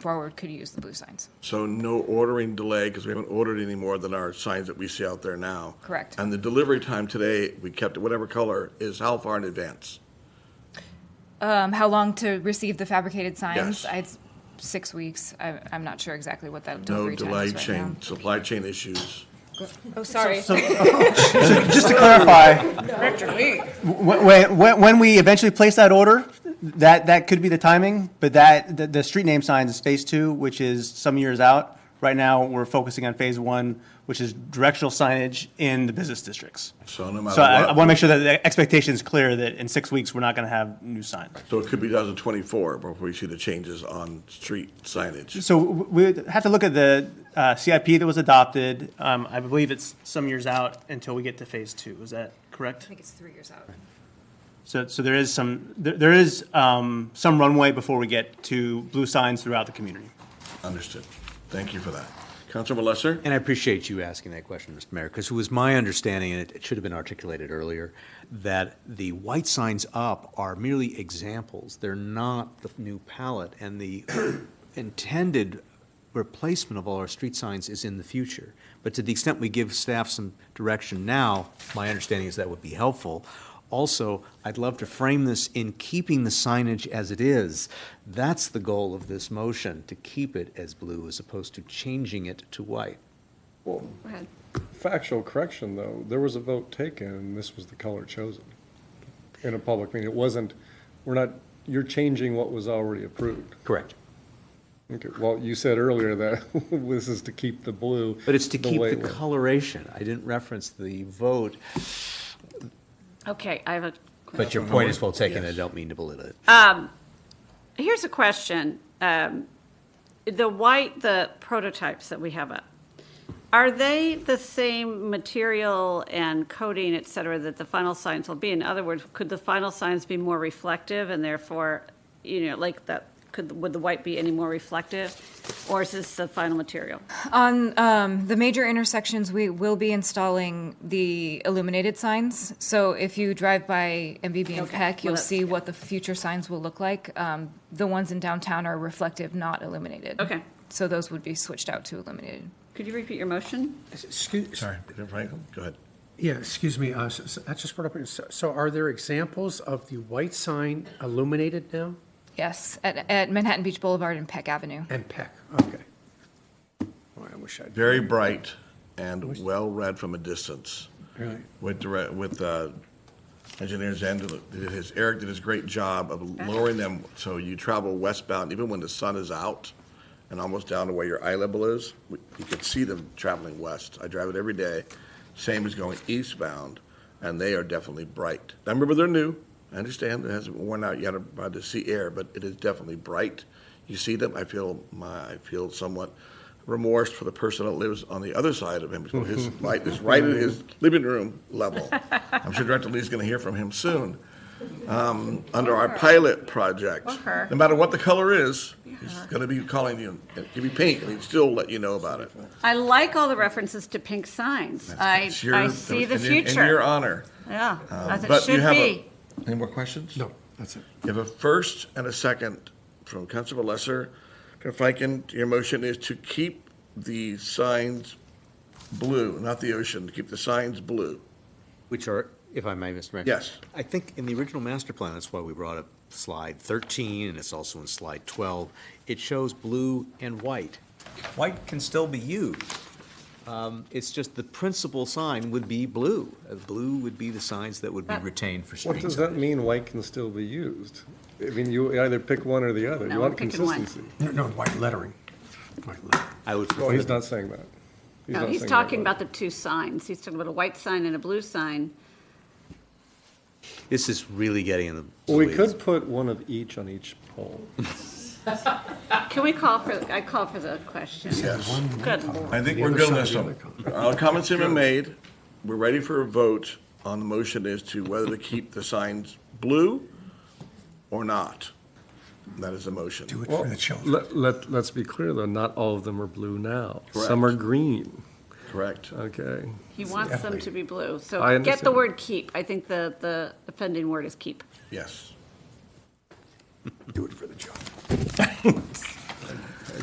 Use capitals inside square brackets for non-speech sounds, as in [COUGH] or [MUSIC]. forward could use the blue signs. So no ordering delay, because we haven't ordered any more than our signs that we see out there now. Correct. And the delivery time today, we kept it whatever color, is how far in advance? Um, how long to receive the fabricated signs? Yes. I- It's six weeks. I, I'm not sure exactly what that No delivery time delay is right now. chain, supply chain issues. Oh, sorry. Just to clarify. When, when, when we eventually place that order, [LAUGHS] that, that could be the timing, but that, the, the street name signs is phase two, which is some years out. Right now, we're focusing on phase one, which is directional signage in the business districts. So no matter So uh, I, I what- want to make sure that the expectation is clear that in six weeks, we're not going to have new signs. So it could be 2024 before we see the changes on street signage. So we we have to look at the uh, CIP that was adopted. Um, I believe it's some years out until we get to phase two. Is that correct? think it's three years out. So, so there is some, there, there is um, some runway before we get to blue signs throughout the community. Understood. Thank you for that. Councilmember Lesser? And I appreciate you asking that question, Mr. Mayor, because it was my understanding, and it- it should have been articulated earlier, that the white signs up are merely examples. They're not the new palette, and the [COUGHS] intended replacement of all our street signs is in the future. But to the extent we give staff some direction now, my understanding is that would be helpful. Also, I'd love to frame this in keeping the signage as it is. That's the goal of this motion, to keep it as blue as opposed to changing it to white. Well, factual correction, though, there was a vote taken, and this was the color chosen in a public meeting. It wasn't, we're not, you're changing what was already approved. Correct. Okay, well, you said earlier that [LAUGHS] this is to keep the blue. But it's to the keep way the it was. coloration. I didn't reference the vote, Okay, I have a, but your point is well taken. I don't mean to belittle it. Uh, here's a question. Um, The white, the prototypes that we have up, are they the same material and coating, et cetera, that the final signs will be? In other words, could the final signs be more reflective and therefore, you know, like that, could, would the white be any more reflective? Or is this the final material? On um, the major intersections, we will be installing the illuminated signs. So if you drive by MBB and Okay. Peck, Well, you'll that's- see what the future signs will look like. Um, The ones in downtown are reflective, not illuminated. Okay. So those would be switched out to illuminated. Could you repeat your motion? Excuse, Sorry, Franklin, go ahead. yeah, excuse me, uh, so- so that just brought up, so- so are there examples of the white sign illuminated now? Yes, at at Manhattan Beach Boulevard and Peck Avenue. And Peck, okay. Boy, I wish I'd. Very bright and well-read from a distance. Really? with direct, with uh, engineers and did his, Eric did his great job of lowering them so you travel westbound even when the sun is out and almost down to where your eye level is. we- You could see them traveling west. I drive it every day. Same as going eastbound, and they are definitely bright. Now remember, they're new. I understand it hasn't worn out yet about the sea air, but it is definitely bright. You see them. I feel my I feel somewhat remorse for the person that lives on the other side of him. So [LAUGHS] His light is right at his living room level. I'm sure Director Lee's going to hear from him soon. Um, under our pilot project, Or her. no matter what the color is, he's going to be calling you. It could be pink, and he'd still let you know about it. I like all the references to pink signs. I, It's your- I see the in your- In your future. honor. Yeah, Um, as it but you should have a- be. Any more questions? No, that's it. You have a first and a second from Councilor Lesser. Councilor Fikin, your motion is to keep the signs blue, not the ocean, to keep the signs blue. Which are, if I may, Mr. Mayor? Yes. I think in the original master plan, that's why we brought up slide 13, and it's also in slide 12. It shows blue and white. White can still be used. Um, It's just the principal sign would be blue. Uh, Blue would be the signs that would be But- retained for street What does that signage. mean, white can still be used? I mean, you either pick one or the other. No, You want I'm picking one. consistency. No, no, white lettering. White lettering. I would Oh, prefer he's that- not saying that. No, not he's saying that, talking but- about the two signs. He's talking about a white sign and a blue sign. This is really getting in the. Well, we weeds. could put one of each on each pole. Can we call for, I call for the question. Yes. Good lord. I think we're good on this one. [LAUGHS] Our comments have been made. We're ready for a vote on the motion as to whether to keep the signs blue or not. That is the motion. Do it for the children. Let, let, let's be clear, though, not all of them are blue now. Some Correct. are green, Correct. okay? He wants them to be blue. I So get the understand. word keep. I think the, the offending word is keep. Yes. Do it for the children.